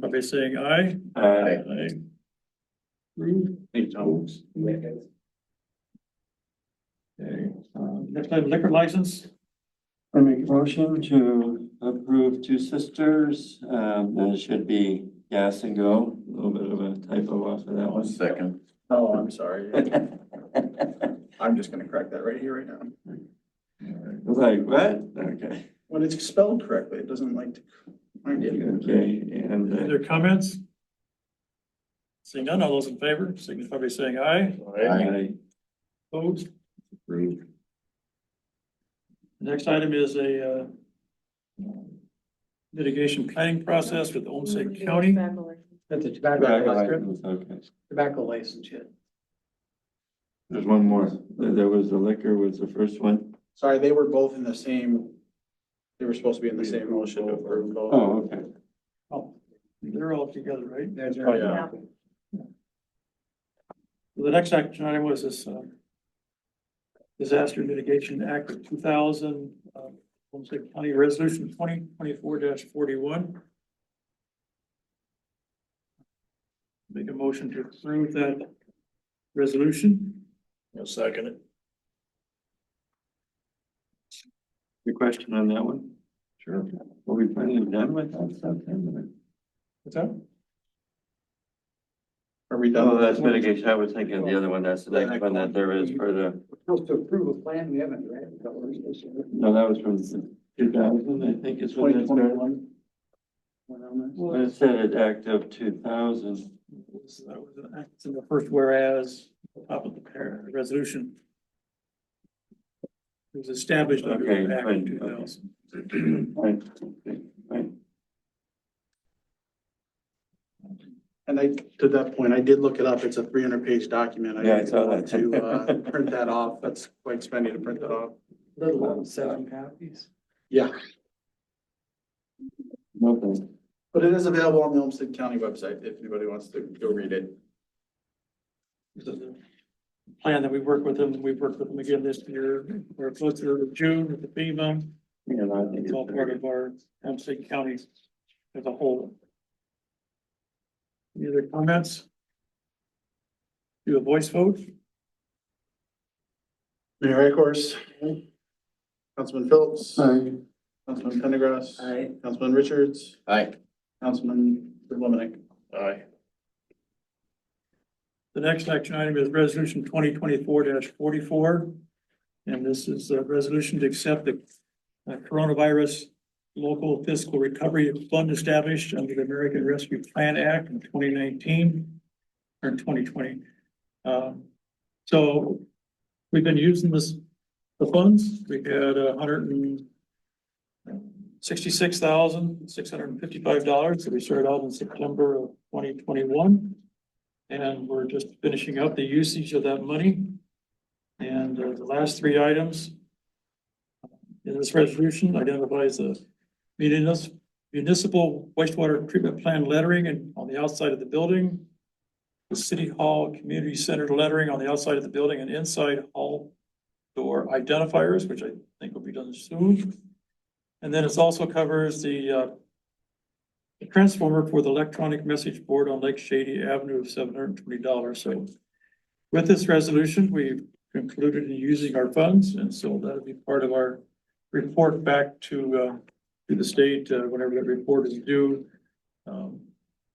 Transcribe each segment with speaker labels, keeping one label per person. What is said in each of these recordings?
Speaker 1: by saying aye.
Speaker 2: Uh,
Speaker 1: Aye. Approved.
Speaker 2: hey, Thomas.
Speaker 1: Okay, um, next item liquor license.
Speaker 3: I make a motion to approve Two Sisters. Um, that should be Gas and Go, a little bit of a typo off of that
Speaker 2: One
Speaker 3: one.
Speaker 2: second.
Speaker 4: Oh, I'm sorry. I'm just gonna correct that right here, right now.
Speaker 3: I was like, what? Okay,
Speaker 4: When it's spelled correctly, it doesn't like to. mind you.
Speaker 3: okay,
Speaker 1: Any
Speaker 3: and uh,
Speaker 1: other comments? Seeing none, all those in favor, signify by saying aye.
Speaker 3: I,
Speaker 1: Opposed.
Speaker 2: Approved.
Speaker 1: Next item is a uh, litigation planning process with Olmsted County.
Speaker 5: That's a
Speaker 3: Tobacco
Speaker 5: tobacco license,
Speaker 3: license, okay.
Speaker 5: tobacco license, yeah.
Speaker 3: There's one more. There was the liquor was the first one.
Speaker 4: Sorry, they were both in the same, they were supposed to be in the same motion to approve both.
Speaker 3: Oh, okay.
Speaker 1: Oh, They're all together, right?
Speaker 3: Oh,
Speaker 4: Yeah.
Speaker 1: The next action item was this uh, Disaster Mitigation Act of two thousand, uh, Homestead County Resolution twenty twenty-four forty-one. Make a motion to approve that resolution.
Speaker 2: One second.
Speaker 3: Your question on that one?
Speaker 2: Sure.
Speaker 3: Are we finally done with that stuff? then?
Speaker 1: What's that?
Speaker 4: Are we done?
Speaker 3: Oh,
Speaker 4: with
Speaker 3: that's
Speaker 4: this one?
Speaker 3: mitigation. I was thinking of the other one. That's the next one that there is for the,
Speaker 5: Supposed to approve a plan, we haven't, right? Is that what we're supposed to do?
Speaker 3: no, that was from two thousand, I think is when that started.
Speaker 5: 2021?
Speaker 3: But it said it act of two thousand.
Speaker 1: was- That was an act in the first whereas, top of the par- resolution. It was established under
Speaker 3: Okay,
Speaker 1: the Act
Speaker 3: fine,
Speaker 1: of
Speaker 3: okay.
Speaker 1: two thousand.
Speaker 3: Right, right.
Speaker 4: And I, to that point, I did look it up. It's a three hundred page document.
Speaker 3: Yeah, I
Speaker 4: didn't
Speaker 3: saw
Speaker 4: want
Speaker 3: that.
Speaker 4: To, uh, print that off. That's quite spendy to print that off.
Speaker 5: Little one, seven copies.
Speaker 4: Yeah,
Speaker 3: Nothing.
Speaker 4: but it is available on the Olmsted County website if anybody wants to go read it.
Speaker 1: This is the Plan that we work with them, we've worked with them again this year, we're close to June with the FEMA,
Speaker 3: You know, I think
Speaker 1: it's all part
Speaker 3: it's.
Speaker 1: of our Hempstead County as a whole. Any other comments? Do a voice vote?
Speaker 4: Mayor Rackors. Councilman Phillips.
Speaker 3: Sorry.
Speaker 4: Councilman Pendergrass. Councilman Richards.
Speaker 2: Aye.
Speaker 4: Councilman Lominick.
Speaker 2: Aye.
Speaker 1: The next action item is resolution twenty twenty-four forty-four. And this is a resolution to accept the uh, coronavirus local fiscal recovery fund established under the American Rescue Plan Act in twenty nineteen or twenty twenty. Um, So we've been using this, the funds, we had a hundred and sixty-six thousand, six hundred and fifty-five dollars that we started out in September of twenty twenty-one. And we're just finishing up the usage of that money. And uh, the last three items uh, in this resolution identifies the munis- municipal wastewater treatment plan lettering and on the outside of the building, the city hall community center lettering on the outside of the building and inside hall door identifiers, which I think will be done soon. And then it also covers the uh, a transformer for the electronic message board on Lake Shady Avenue of seven hundred and twenty dollars, so. With this resolution, we've concluded in using our funds, and so that'll be part of our report back to, uh, to the state, uh, whenever that report is due. Um,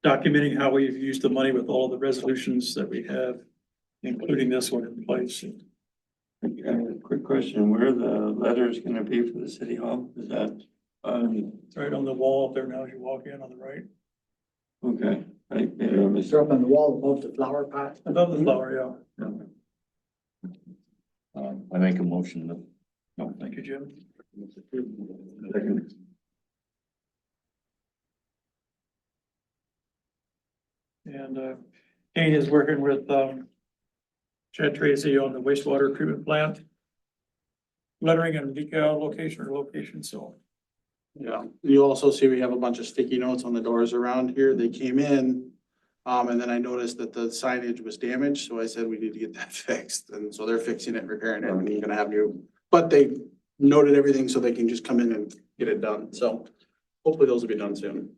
Speaker 1: documenting how we've used the money with all the resolutions that we have, including this one in place.
Speaker 3: Okay, Quick question, where are the letters gonna be for the city hall? Is that, um,
Speaker 1: It's right on the wall up there now as you walk in on the right,
Speaker 3: okay, I, maybe I missed.
Speaker 5: They're up on the wall above the flower pot.
Speaker 1: above the flower, yeah.
Speaker 2: Um, I make a motion to.
Speaker 1: No, thank you, Jim.
Speaker 2: Second.
Speaker 1: And uh, Kane is working with um, Chad Tracy on the wastewater treatment plant. Lettering and decal location or location, so
Speaker 4: Yeah, you also see we have a bunch of sticky notes on the doors around here. They came in. Um, and then I noticed that the signage was damaged, so I said we need to get that fixed. And so they're fixing it, repairing it, and they're gonna have new. But they noted everything so they can just come in and get it done. So hopefully those will be done soon.